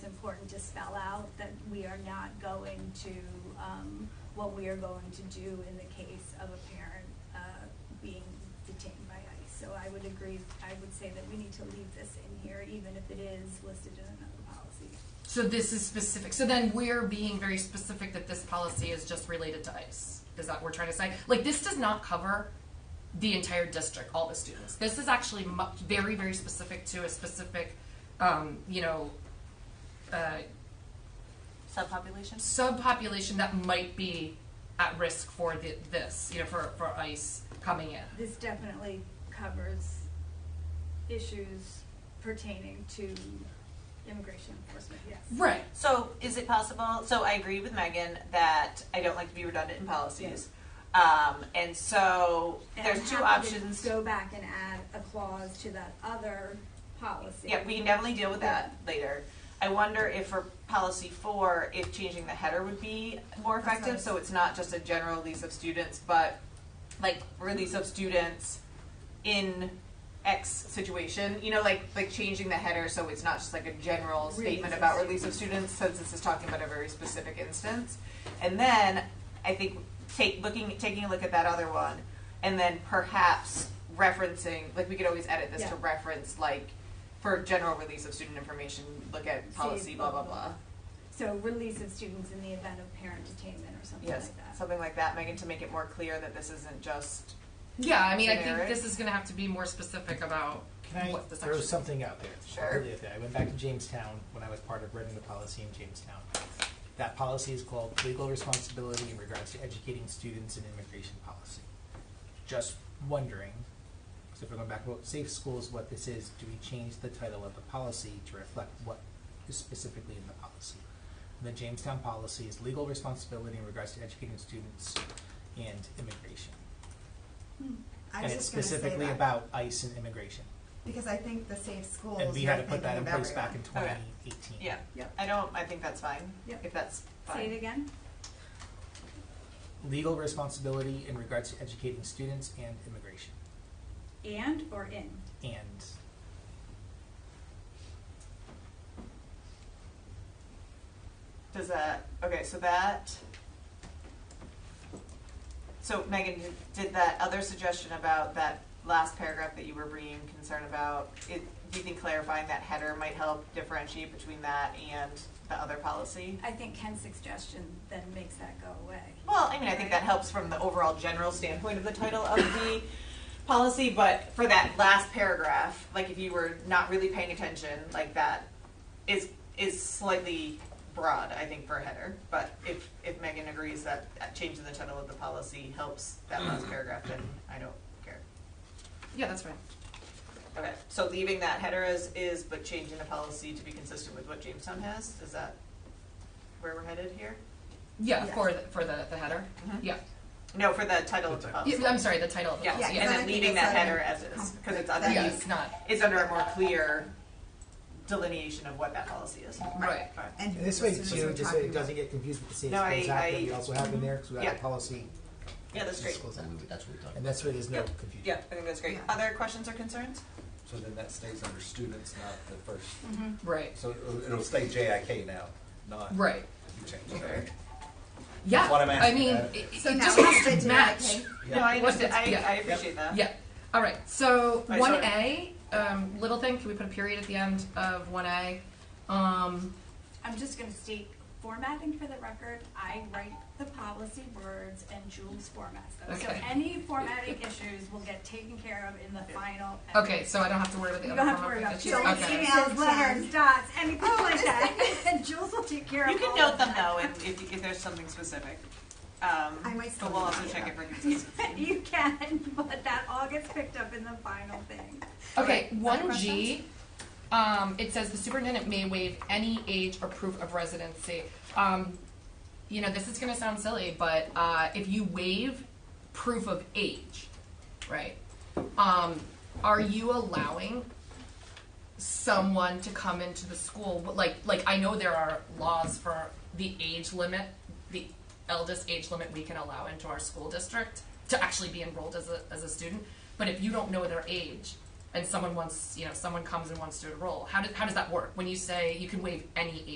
important to spell out that we are not going to, um, what we are going to do in the case of a parent, uh, being detained by ICE. So I would agree, I would say that we need to leave this in here, even if it is listed in another policy. So this is specific, so then we're being very specific that this policy is just related to ICE, is that what we're trying to say? Like, this does not cover the entire district, all the students. This is actually mu- very, very specific to a specific, um, you know, uh, Subpopulations? subpopulation that might be at risk for the, this, you know, for, for ICE coming in. This definitely covers issues pertaining to immigration enforcement, yes. Right. So is it possible, so I agree with Megan that I don't like to be redundant in policies. Um, and so And I'm there's two happy to options. Go back and add a clause to that other policy. Yeah, we can definitely deal with that later. I wonder if for policy four, if changing the header would be more That's effective, nice. so it's not just a general release of students, but like release of students in X situation, you know, like, like changing the header so it's not just like a general Release statement of about release of students, since this is talking about a very specific instance. And then, I think, take, looking, taking a look at that other one, and then perhaps referencing, like, we could always edit this Yeah. to reference, like, for general release of student information, look at See, policy, blah, blah, blah. So release of students in the event of parent detainment or something like Yes, that. something like that, Megan, to make it more clear that this isn't just, Yeah, I mean, I think Generic. this is gonna have to be more specific about Can I what the section. throw something out there? Sure. Completely out there. I went back to Jamestown when I was part of writing the policy in Jamestown. That policy is called legal responsibility in regards to educating students in immigration policy. Just wondering, so if we're going back about safe schools, what this is, do we change the title of the policy to reflect what is specifically in the policy? The Jamestown policy is legal responsibility in regards to educating students and immigration. Hmm, I And was it's just gonna say specifically that, about ICE and immigration. Because I think the safe schools. And we had to you're put that in thinking of place back in everyone. twenty Okay. eighteen. yeah. Yep. I don't, I think that's fine, Yep. if that's Say it fine. again? Legal responsibility in regards to educating students and immigration And or in? and Does that, okay, so that. So Megan, did- did that other suggestion about that last paragraph that you were bringing concern about, it, do you think clarifying that header might help differentiate between that and the other policy? I think Ken's suggestion then makes that go away. Well, I mean, I think that helps from the overall general standpoint of the title of the policy, but for that last paragraph, like if you were not really paying attention, like that is is slightly broad, I think, for a header. But if if Megan agrees that changing the title of the policy helps that last paragraph, then I don't care. Yeah, that's fine. Okay, so leaving that header as is, but changing the policy to be consistent with what Jamestown has, is that where we're headed here? Yeah, Yeah. for, the- for the, the header, Mhm. yeah. No, for the title of the The title. policy. Yeah, I'm sorry, the title of the Yeah, policy, Yeah, and yes. then exactly. leaving that That's header what I as is, because it's under, then- Yeah, Yes. it's not, it's under a more clear delineation of what that policy is. right. Fine. And And this way as soon as too, we're just so talking it about- doesn't get confused with the Safe No, I- Schools Act that we I- also have in there, because we have Yeah. a policy. Yeah, that's Safe great. Schools So Act. we- that's what we're talking And that's where there's no confusion. Yeah, I think that's great. Yeah. Other questions or concerns? about. So then that stays under students, not the first, Right. so it'll- it'll stay JIK now, not. Right. You change it, right? Yeah. what I'm I asking, mean, uh, it, it So now just we has have to to match. dedicate- Yeah. No, I What's understand, I, yeah. I appreciate that. Yeah. All right. So I one saw A, um, little thing. Can we put a period at the end of one A? Um, I'm just gonna state formatting for the record, I write the policy words and Jules formats them. So Okay. any formatting issues will get taken care of in the final. edit. okay. So I don't have to worry about the You other don't have to worry format about issues? Jules, Okay. emails, letters, dots, anything like that, and Jules will take care of all You of that. can note them though, if, if, if there's something specific. Um, I might still But we'll do also that, check yeah. it for consistency. You can, but that all gets picked up in the final thing. Okay, Other one questions? G, um, it says the superintendent may waive any age or proof of residency. Um, you know, this is gonna sound silly, but, uh, if you waive proof of age, right? Um, are you allowing someone to come into the school, But like, like, I know there are laws for the age limit, the eldest age limit we can allow into our school district to actually be enrolled as a, as a student, but if you don't know their age, and someone wants, you know, someone comes and wants to enroll, how does, how does that work? When you say you can waive any age?